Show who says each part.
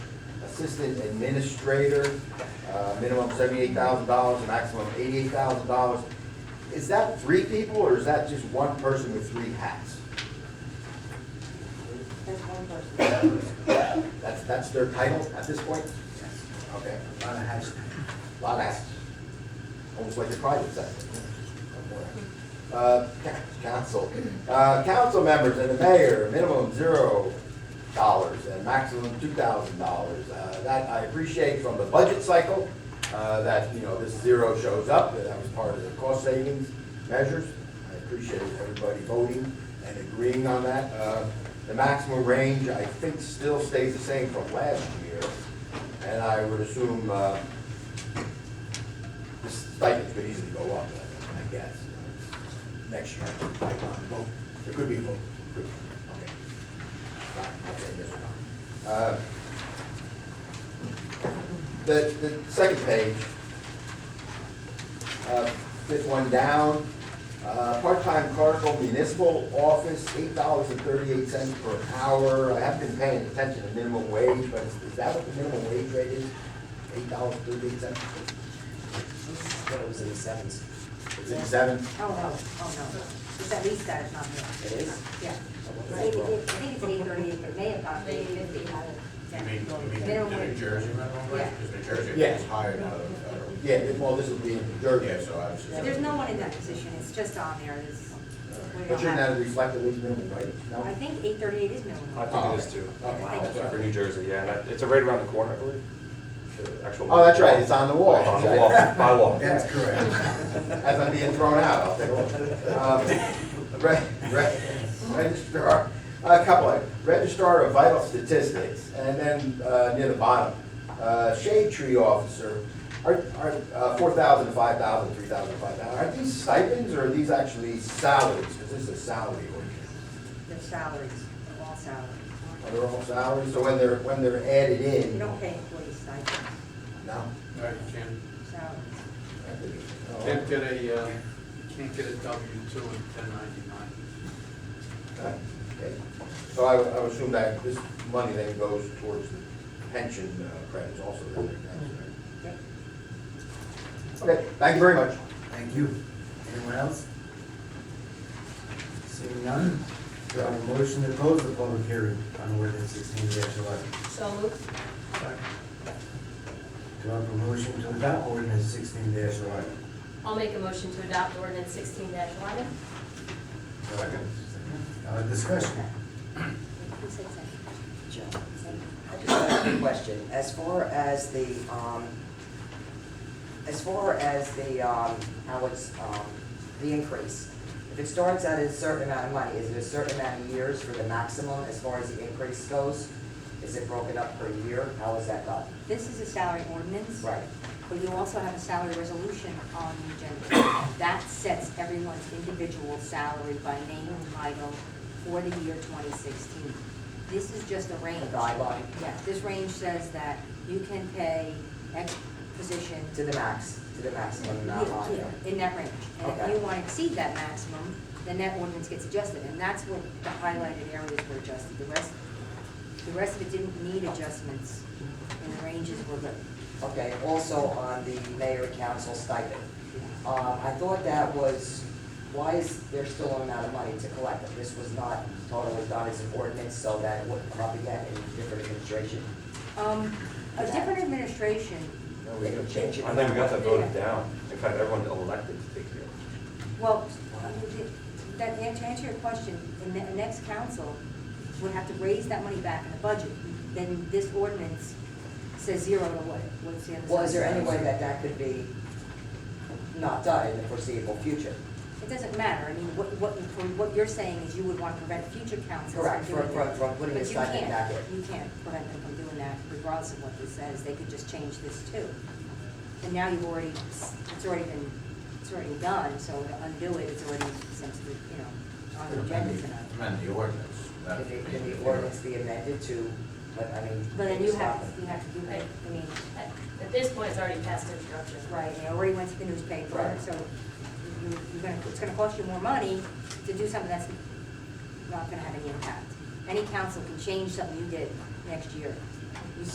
Speaker 1: assistant administrator, uh, minimum seventy-eight thousand dollars, maximum eighty-eight thousand dollars. Is that three people, or is that just one person with three hats?
Speaker 2: There's one person.
Speaker 1: That's, that's their title at this point? Okay,
Speaker 3: lot of hats.
Speaker 1: lot of hats. Almost like the private sector. Uh, ca- Council, uh, council members and the mayor, minimum zero dollars and maximum two thousand dollars. Uh, That I appreciate from the budget cycle, uh, that, you know, this zero shows up, that that was part of the cost savings measures. I appreciate everybody voting and agreeing on that. Uh, The maximum range, I think, still stays the same from last year, and I would assume uh, the stipends could easily go up, I guess, next year, I might not vote, there could be a vote, Could be. okay. All right, I'll say yes or no. Uh, The, the second page, uh, fifth one down, uh, part-time clerical municipal office, eight dollars and thirty-eight cents per hour. I haven't been paying attention to minimum wage, but is is that what the minimum wage rate is? Eight dollars and thirty-eight cents?
Speaker 3: But it was in the sevens.
Speaker 1: Is it seven?
Speaker 2: Oh, no, oh, no. It's at least that, it's not me.
Speaker 3: It is?
Speaker 2: Yeah. I
Speaker 3: Right.
Speaker 2: think it's- I think it's eight thirty-eight, it may have gotten eight fifty.
Speaker 4: You mean, you mean the New Jersey minimum wage, because New Jersey
Speaker 1: Yeah.
Speaker 4: is higher now than federal.
Speaker 1: Yeah, well, this would be in Jersey.
Speaker 4: Yeah, so obviously.
Speaker 2: There's no one in that position, it's just on there, it's. we
Speaker 1: But
Speaker 2: don't
Speaker 1: you're
Speaker 2: have-
Speaker 1: not reflective wage minimum wage, no?
Speaker 2: I think eight thirty-eight is minimum.
Speaker 5: I think it is too.
Speaker 1: Oh, wow.
Speaker 5: Sorry, For New Jersey, yeah, and that- it's right around the corner, I believe. The actual-
Speaker 1: Oh, that's right, it's on the wall.
Speaker 5: On the wall, by law.
Speaker 3: That's correct.
Speaker 1: As I'm being thrown out, I'll take one. Um, re- re- Registrar, a couple of, registrar of vital statistics, and then uh, near the bottom, uh, shade tree officer, are, are four thousand, five thousand, three thousand, five thousand, are these stipends or are these actually salaries? Because this is a salary ordinance.
Speaker 2: Their salaries, they're all salaries.
Speaker 1: Are they all salaries? So when they're, when they're added
Speaker 2: You
Speaker 1: in?
Speaker 2: don't pay employees stipends,
Speaker 1: No?
Speaker 6: Right, you can't,
Speaker 2: salaries.
Speaker 6: can't get a, uh, you can't get a W two in ten ninety-nine.
Speaker 1: Okay. So I, I would assume that this money then goes towards the pension uh, credits also. then, right?
Speaker 2: Yep.
Speaker 1: Okay, thank you very much.
Speaker 3: Thank you. Anyone else? Seeing none, do I have a motion to close the public hearing on ordinance sixteen eleven?
Speaker 7: So moved.
Speaker 3: Do I have a motion to adopt ordinance sixteen eleven?
Speaker 7: I'll make a motion to adopt ordinance sixteen eleven.
Speaker 3: Second. Uh, discussion.
Speaker 2: Who said second?
Speaker 8: Joe, I just have a question. As far as the, um, as far as the, um, how it's, um, the increase, if it starts at a certain amount of money, is it a certain amount of years for the maximum as far as the increase goes? Is it broken up per year? How is that done?
Speaker 2: This is a salary ordinance.
Speaker 8: Right.
Speaker 2: But you also have a salary resolution on the agenda. That sets everyone's individual salary by name and title for the year 2016. This is just a range.
Speaker 8: A guideline
Speaker 2: Yeah, this range says that you can pay X position.
Speaker 8: to the max, to the maximum amount
Speaker 2: Yeah,
Speaker 8: on there?
Speaker 2: yeah, In that range. And if
Speaker 8: Okay.
Speaker 2: you want to exceed that maximum, then that ordinance gets adjusted. And that's what the highlighted areas were adjusted. The rest, the rest of it didn't need adjustments, and the ranges were good.
Speaker 8: Okay, also on the mayor council stipend. Um, I thought that was, why is there still an amount of money to collect? If This was not totally done as an ordinance so that it wouldn't come up again in different administration.
Speaker 2: Um, a different administration,
Speaker 1: No, we
Speaker 8: They
Speaker 1: don't
Speaker 8: could change it.
Speaker 5: I think we got that voted down. In fact, everyone elected to take the oath.
Speaker 2: well, uh, th- that, to answer your question, the ne- next council would have to raise that money back in the budget. Then this ordinance says zero to what, what's the other side?
Speaker 8: Well, is there any way that that could be not done in the foreseeable future?
Speaker 2: It doesn't matter, I mean, what, what, for what you're saying is you would want to prevent future councils from doing
Speaker 8: Correct,
Speaker 2: that.
Speaker 8: for- for- for putting a stipend back
Speaker 2: But
Speaker 8: in.
Speaker 2: you can't, you can't prevent them from doing that regardless of what this says, they could just change this too. And now you've already, it's already been, it's already done, so to undo it, it's already essentially, you know, on the agenda tonight.
Speaker 4: Amend the ordinance.
Speaker 8: Can the, can the ordinance be amended to, but I mean,
Speaker 2: But then you have,
Speaker 8: stop it?
Speaker 2: you have to do it, I mean,
Speaker 7: At at this point, it's already past introduction.
Speaker 2: right, it already went to the newspaper,
Speaker 8: Right.
Speaker 2: so you- you're gonna, it's gonna cost you more money to do something that's not gonna have any impact. Any council can change something you did next year. You